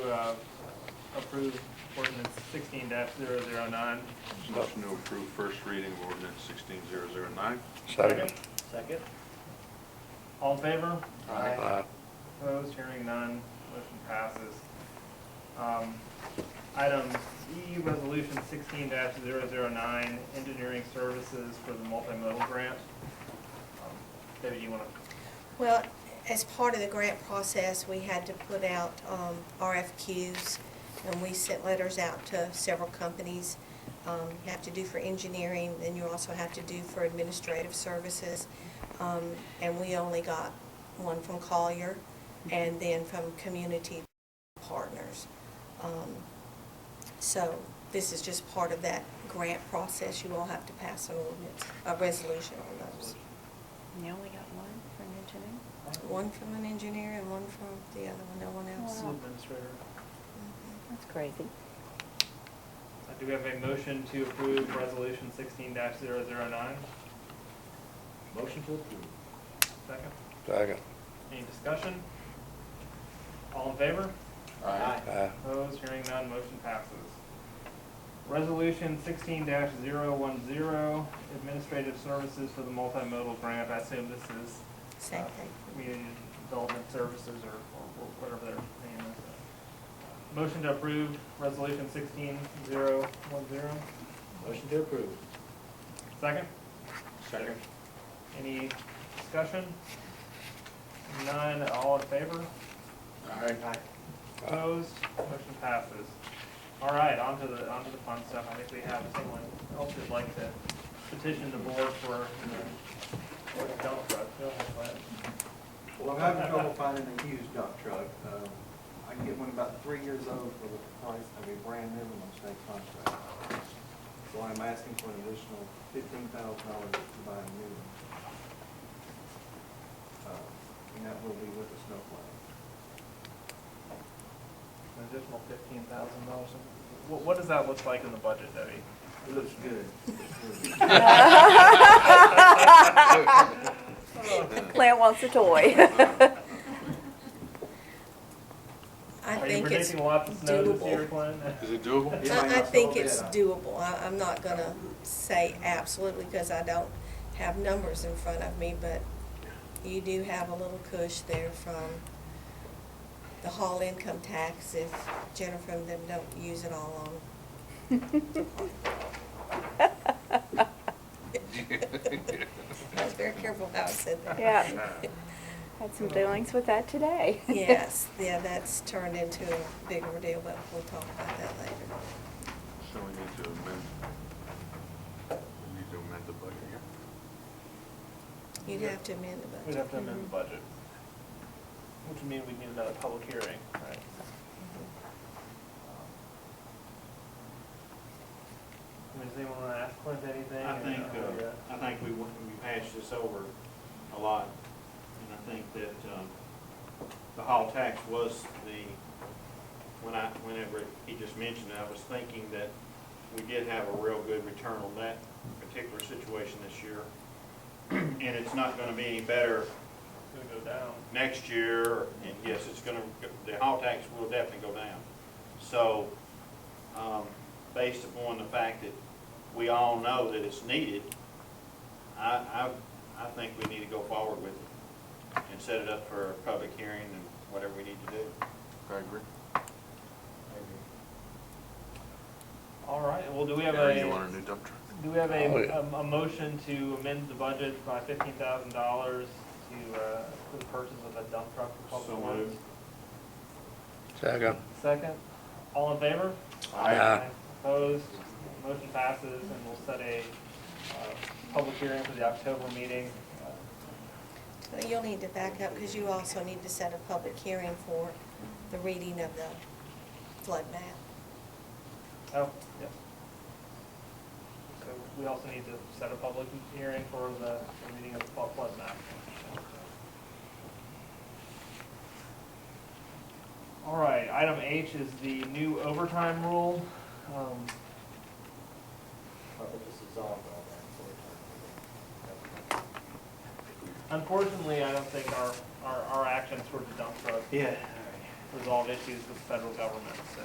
uh, approve ordinance sixteen 9 Motion to approve first reading of ordinance sixteen zero zero nine. Second. Second. All in favor? Aye. Opposed, hearing none, motion passes. Um, Item E, resolution sixteen 9 engineering services for the multimodal grant. Um, Debbie, you want to, Well, as part of the grant process, we had to put out um, RFQs, and we sent letters out to several companies. Um, You have to do for engineering, then you also have to do for administrative services. Um, And we only got one from Collier, and then from Community Partners. Um, So this is just part of that grant process. You all have to pass an ordinance, a resolution on those. You only got one for engineering? One from an engineer and one from the other one, no one else. school administrator, That's crazy. Uh, do we have a motion to approve resolution sixteen 9 Motion to approve. Second, Second. any discussion? All in favor? Aye. Aye. Opposed, hearing none, motion passes. Resolution sixteen 10 administrative services for the multimodal grant. I assume this is. uh, Same thing. Community Development Services or, or whatever their name is. Motion to approve resolution sixteen zero one zero. Motion to approve. Second, Second. any discussion? None, all in favor? Aye. Opposed, motion passes. All right, on to the, on to the fun stuff. I think we have someone else who'd like to petition the board for, uh, for a dump truck. Go ahead, Glenn. Well, I'm having trouble finding a used dump truck. Um, I can get one about three years old for the price of a brand new one on state contract. So I'm asking for an additional fifteen thousand dollars to buy a new one. Uh, And that will be with a snowplow. An additional fifteen thousand dollars. What, what does that look like in the budget, Debbie? It looks good. It's good. Claire wants a toy. I Are you think it's, predicting lots of snow this doable. year, Glenn? Is it doable? Yeah. I, I think it's doable. I, I'm not gonna say absolutely because I don't have numbers in front of me, but you do have a little push there from the hall income tax if Jennifer and them don't use it all on. I was very careful how I said that. Yeah, had some dealings with that today. Yes, yeah, that's turned into a bigger deal, but we'll talk about that later. So we need to amend, we need to amend the budget here. You'd have to amend the We'd budget. have to amend the budget. Which would mean we'd need another public hearing, right? I mean, Does anyone want to ask Clint anything? I or think, not really yet? uh, I think we, went- we hashed this over a lot, and I think that, um, the hall tax was the, when I, whenever he just mentioned it, I was thinking that we did have a real good return on that particular situation this year. And it's not gonna be any better It's gonna go down. next year, and yes, it's gonna, the hall tax will definitely go down. So, um, based upon the fact that we all know that it's needed, I, I, I think we need to go forward with it and set it up for a public hearing and whatever we need to do. I agree. All right, well, do we have Gary, you a, want a new dump truck? do we have Oh, a, um, yeah. a- a motion to amend the budget by fifteen thousand dollars to, uh, for the purchase of a dump truck for So public works? moved. Second. Second, all in favor? Aye. Opposed, motion passes, and we'll set a uh, public hearing for the October meeting. Uh, Well, You'll need to back up because you also need to set a public hearing for the reading of the flood map. Oh, yeah. So we also need to set a public hearing for the the reading of the flood flood map. All right, item H is the new overtime rule. Um, I think this is all about that. Unfortunately, I don't think our, our, our actions toward the dump truck Yeah, all right. resolve issues with the federal government, so.